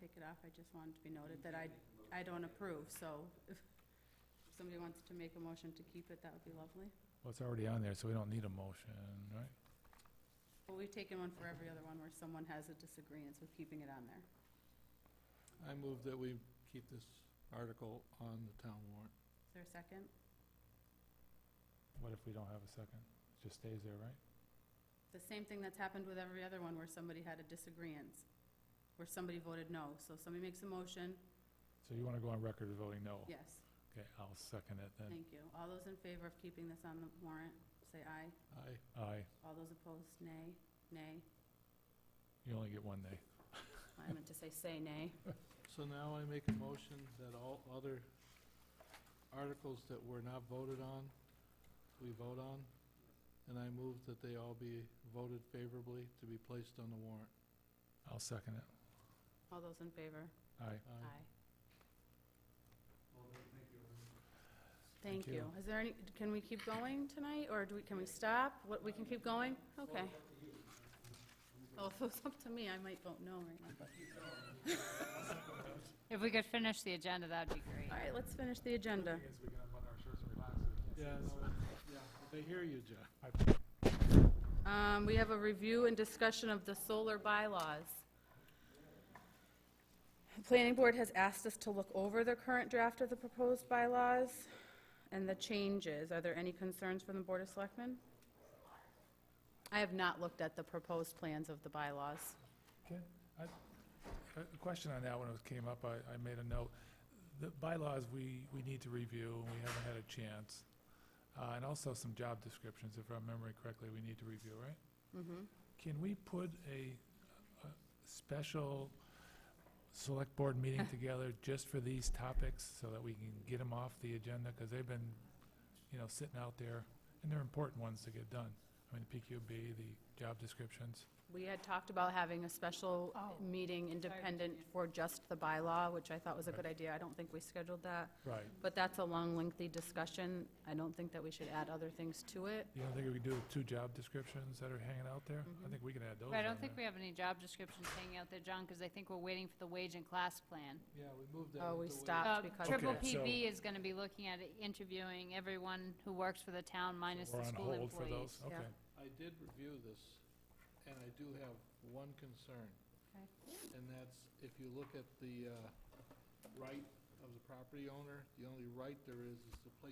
take it off, I just wanted to be noted that I, I don't approve, so if somebody wants to make a motion to keep it, that would be lovely. Well, it's already on there, so we don't need a motion, right? But we've taken one for every other one where someone has a disagreement with keeping it on there. I move that we keep this article on the town warrant. Is there a second? What if we don't have a second? It just stays there, right? The same thing that's happened with every other one where somebody had a disagreement, where somebody voted no. So somebody makes a motion, So you want to go on record as voting no? yes, Okay, I'll second it Oh, then. thank you. All those in favor of keeping this on the warrant, say aye. Aye. Aye. All those opposed, nay, nay. You only get one nay. I meant to say say nay. So now I make a motion that all other articles that were not voted on, we vote on, and I move that they all be voted favorably to be placed on the warrant. I'll second it. All those in favor? Aye. Aye. Thank Thank you. you. Is there any, can we keep going tonight, or do we, can we stop? What, we can keep going? Okay. Well, if it was up to me, I might vote no right now. If we could finish the agenda, that'd be great. All right, let's finish the agenda. we can unbutton our shirts and relax. so we can't see this. Yeah, no, yeah, they hear you, John. I- Um, we have a review and discussion of the solar bylaws. The Planning Board has asked us to look over the current draft of the proposed bylaws and the changes. Are there any concerns from the Board of Selectmen? I have not looked at the proposed plans of the bylaws. Ken, I- A question on that when it came up, I, I made a note. The bylaws, we, we need to review, and we haven't had a chance. Uh, and also some job descriptions, if I remember correctly, we need to review, right? Mm-hmm. Can we put a, a special select board meeting together just for these topics so that we can get them off the agenda? Because they've been, you know, sitting out there, and they're important ones to get done. I mean, the PQB, the job descriptions. We had talked about having a special Oh. meeting independent for just the bylaw, which I thought was a good Right. idea. I don't think we scheduled that, Right. but that's a long, lengthy discussion. I don't think that we should add other things to it. You don't think we could do two job descriptions that are hanging out there? I think we can add those Mm-hmm. But I on don't think we there. have any job descriptions hanging out there, John, because I think we're waiting for the wage and class plan. Yeah, we moved that. Oh, we into a- stopped. That's Uh, because- Triple Okay, so- PB is going to be looking at interviewing everyone who works for the town minus We're the on school hold for those, employees. okay. Yeah. I did review this, and I do have one concern. Okay. And that's, if you look at the uh, right of the property owner, the only right there is, is to place